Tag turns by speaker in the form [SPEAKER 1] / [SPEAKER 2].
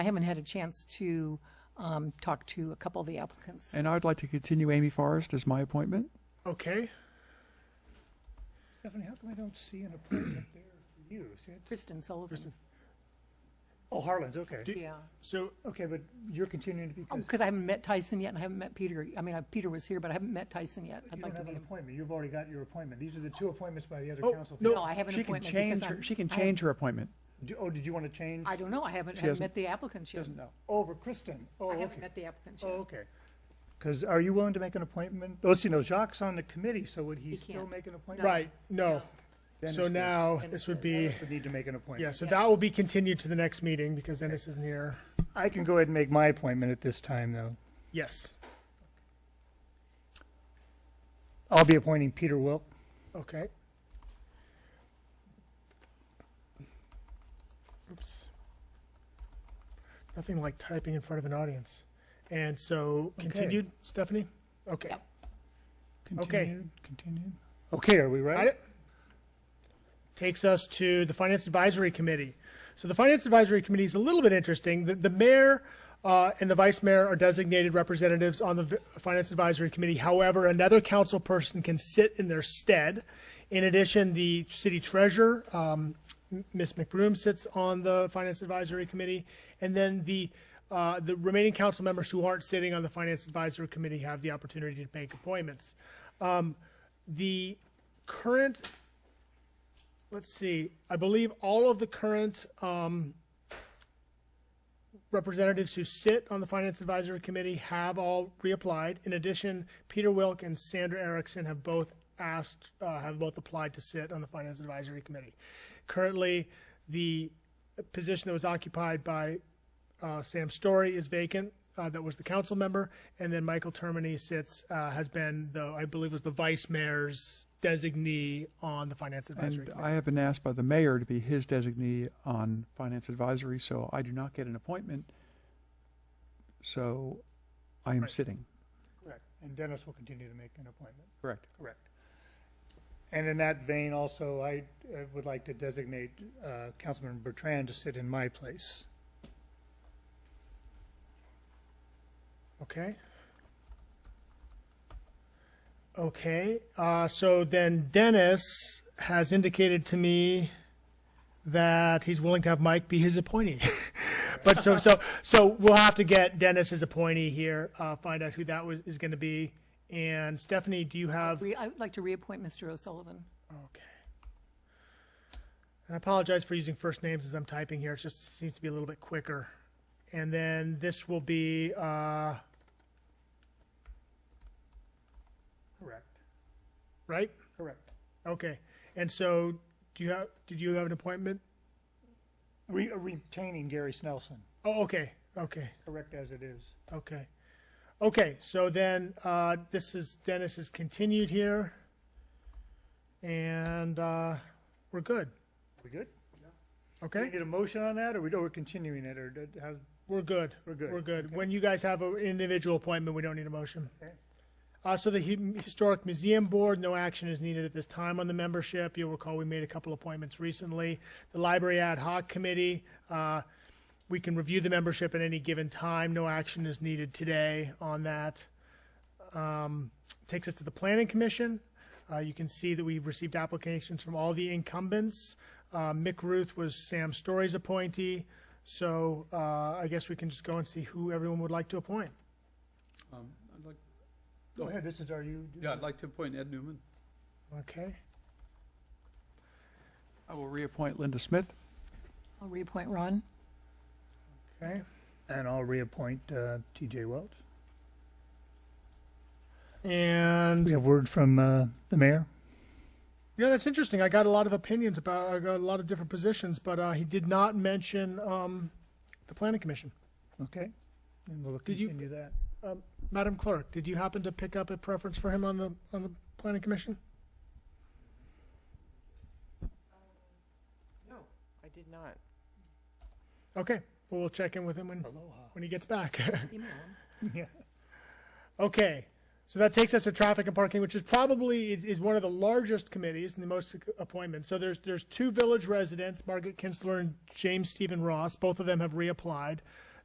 [SPEAKER 1] I haven't had a chance to um, talk to a couple of the applicants.
[SPEAKER 2] And I'd like to continue Amy Forrest as my appointment.
[SPEAKER 3] Okay.
[SPEAKER 4] Stephanie, how come I don't see an appointment there for you? See, it's-
[SPEAKER 1] Kristen Sullivan,
[SPEAKER 4] Oh, Harlan's, okay.
[SPEAKER 3] Do-
[SPEAKER 1] yeah.
[SPEAKER 3] So,
[SPEAKER 4] Okay, but you're continuing to be,
[SPEAKER 1] Oh,
[SPEAKER 4] because
[SPEAKER 1] because I haven't met Tyson yet, and I haven't met Peter. I mean, I- Peter was here, but I haven't met Tyson yet. I'd
[SPEAKER 4] you
[SPEAKER 1] like
[SPEAKER 4] don't
[SPEAKER 1] to
[SPEAKER 4] have
[SPEAKER 1] meet
[SPEAKER 4] an
[SPEAKER 1] him.
[SPEAKER 4] appointment. You've already got your appointment. These are the two appointments by the other
[SPEAKER 3] Oh,
[SPEAKER 4] council.
[SPEAKER 3] no.
[SPEAKER 1] No, I have an
[SPEAKER 2] She can
[SPEAKER 1] appointment because
[SPEAKER 2] change her,
[SPEAKER 1] I'm...
[SPEAKER 2] she can
[SPEAKER 1] I have-
[SPEAKER 2] change her appointment.
[SPEAKER 4] Do- Oh, did you want to change?
[SPEAKER 1] I don't know, I haven't,
[SPEAKER 2] She
[SPEAKER 1] haven't met
[SPEAKER 2] hasn't-
[SPEAKER 1] the applicants yet.
[SPEAKER 2] know.
[SPEAKER 4] Over Kristen? Oh,
[SPEAKER 1] I
[SPEAKER 4] okay.
[SPEAKER 1] haven't met the applicants
[SPEAKER 4] Oh,
[SPEAKER 1] yet.
[SPEAKER 4] okay. Because are you willing to make an appointment? Oh, see, no, Jacques on the committee, so would he
[SPEAKER 1] He
[SPEAKER 4] still
[SPEAKER 1] can't.
[SPEAKER 4] make an appointment?
[SPEAKER 3] right, no.
[SPEAKER 2] Dennis
[SPEAKER 3] So
[SPEAKER 2] would.
[SPEAKER 3] now,
[SPEAKER 1] Dennis
[SPEAKER 3] this would
[SPEAKER 1] would.
[SPEAKER 3] be,
[SPEAKER 4] Would need to make an
[SPEAKER 3] yeah,
[SPEAKER 4] appointment.
[SPEAKER 3] so
[SPEAKER 1] Yeah.
[SPEAKER 3] that will be continued to the next meeting because Dennis isn't here.
[SPEAKER 4] I can go ahead and make my appointment at this time, though.
[SPEAKER 3] Yes.
[SPEAKER 4] I'll be appointing Peter Wilk.
[SPEAKER 3] Okay. Oops. Nothing like typing in front of an audience. And so,
[SPEAKER 4] Okay.
[SPEAKER 3] continued, Stephanie? Okay.
[SPEAKER 1] Yep.
[SPEAKER 4] Continued, continued. Okay, are we
[SPEAKER 3] Got
[SPEAKER 4] ready?
[SPEAKER 3] it? Takes us to the Finance Advisory Committee. So the Finance Advisory Committee is a little bit interesting. The, the mayor uh, and the vice mayor are designated representatives on the v- Finance Advisory Committee. However, another council person can sit in their stead. In addition, the city treasurer, um, M- Ms. McBroom, sits on the Finance Advisory Committee. And then the, uh, the remaining council members who aren't sitting on the Finance Advisory Committee have the opportunity to make appointments. Um, the current, let's see, I believe all of the current um, representatives who sit on the Finance Advisory Committee have all reapplied. In addition, Peter Wilk and Sandra Erickson have both asked, uh, have both applied to sit on the Finance Advisory Committee. Currently, the position that was occupied by uh, Sam Story is vacant. Uh, that was the council member, and then Michael Termini sits uh, has been the I believe was the vice mayor's designee on the finance advisory.
[SPEAKER 2] And
[SPEAKER 3] committee.
[SPEAKER 2] I have been asked by the mayor to be his designee on finance advisory, so I do not get an appointment. So I am
[SPEAKER 3] Right.
[SPEAKER 2] sitting,
[SPEAKER 4] Correct. And Dennis will continue to make an appointment.
[SPEAKER 2] correct.
[SPEAKER 4] Correct. And in that vein also, I uh, would like to designate uh, Councilman Bertrand to sit in my place.
[SPEAKER 3] Okay. Okay. Uh, so then Dennis has indicated to me that he's willing to have Mike be his appointee. but so so so we'll have to get Dennis as appointee here. Uh, find out who that was is going to be. And Stephanie, do you have?
[SPEAKER 1] Re- I would like to reappoint Mr. O'Sullivan.
[SPEAKER 3] Okay. And I apologize for using first names as I'm typing here. It just seems to be a little bit quicker. And then this will be. Uh,
[SPEAKER 4] Correct.
[SPEAKER 3] right?
[SPEAKER 4] Correct.
[SPEAKER 3] Okay. And so, do you have? Did you have an appointment?
[SPEAKER 4] Re- uh, Retaining Gary Snelson,
[SPEAKER 3] Oh, okay. Okay.
[SPEAKER 4] correct as it is.
[SPEAKER 3] Okay. Okay. So then, uh, this is Dennis is continued here, and uh, we're good.
[SPEAKER 4] We good? Do we
[SPEAKER 3] Okay.
[SPEAKER 4] need a motion on that, or we- or we're continuing it, or d- how,
[SPEAKER 3] We're good.
[SPEAKER 4] we're good?
[SPEAKER 3] We're good.
[SPEAKER 4] Okay.
[SPEAKER 3] When you guys have an individual appointment, we don't need a motion.
[SPEAKER 4] Okay.
[SPEAKER 3] Uh, so the Hu- Historic Museum Board, no action is needed at this time on the membership. You'll recall we made a couple appointments recently. The Library Ad Hoc Committee, uh, we can review the membership at any given time. No action is needed today on that. Um, takes us to the Planning Commission. Uh, you can see that we've received applications from all the incumbents. Uh, Mick Ruth was Sam Story's appointee. So uh, I guess we can just go and see who everyone would like to appoint.
[SPEAKER 4] Go ahead, this is our, you.
[SPEAKER 5] Um, Yeah, I'd like to appoint Ed Newman.
[SPEAKER 3] Okay.
[SPEAKER 2] I will reappoint Linda Smith.
[SPEAKER 1] I'll reappoint Ron.
[SPEAKER 3] Okay.
[SPEAKER 4] And I'll reappoint uh, TJ Welch.
[SPEAKER 3] And
[SPEAKER 4] We have word from uh, the mayor?
[SPEAKER 3] you know that's interesting. I got a lot of opinions about I got a lot of different positions, but uh, he did not mention um, the planning commission.
[SPEAKER 4] Okay. And we'll
[SPEAKER 3] Did you-
[SPEAKER 4] continue that.
[SPEAKER 3] Madam Clerk, did you happen to pick up a preference for him on the on the planning commission?
[SPEAKER 6] Um, I did not.
[SPEAKER 3] Okay. Well, we'll check in with him when
[SPEAKER 4] Aloha.
[SPEAKER 3] when he gets back.
[SPEAKER 1] Email him.
[SPEAKER 4] Yeah.
[SPEAKER 3] Okay, so that takes us to traffic and parking, which is probably is, is one of the largest committees and the most appointments. So there's there's two village residents, Margaret Kinsler and James Stephen Ross. Both of them have reapplied.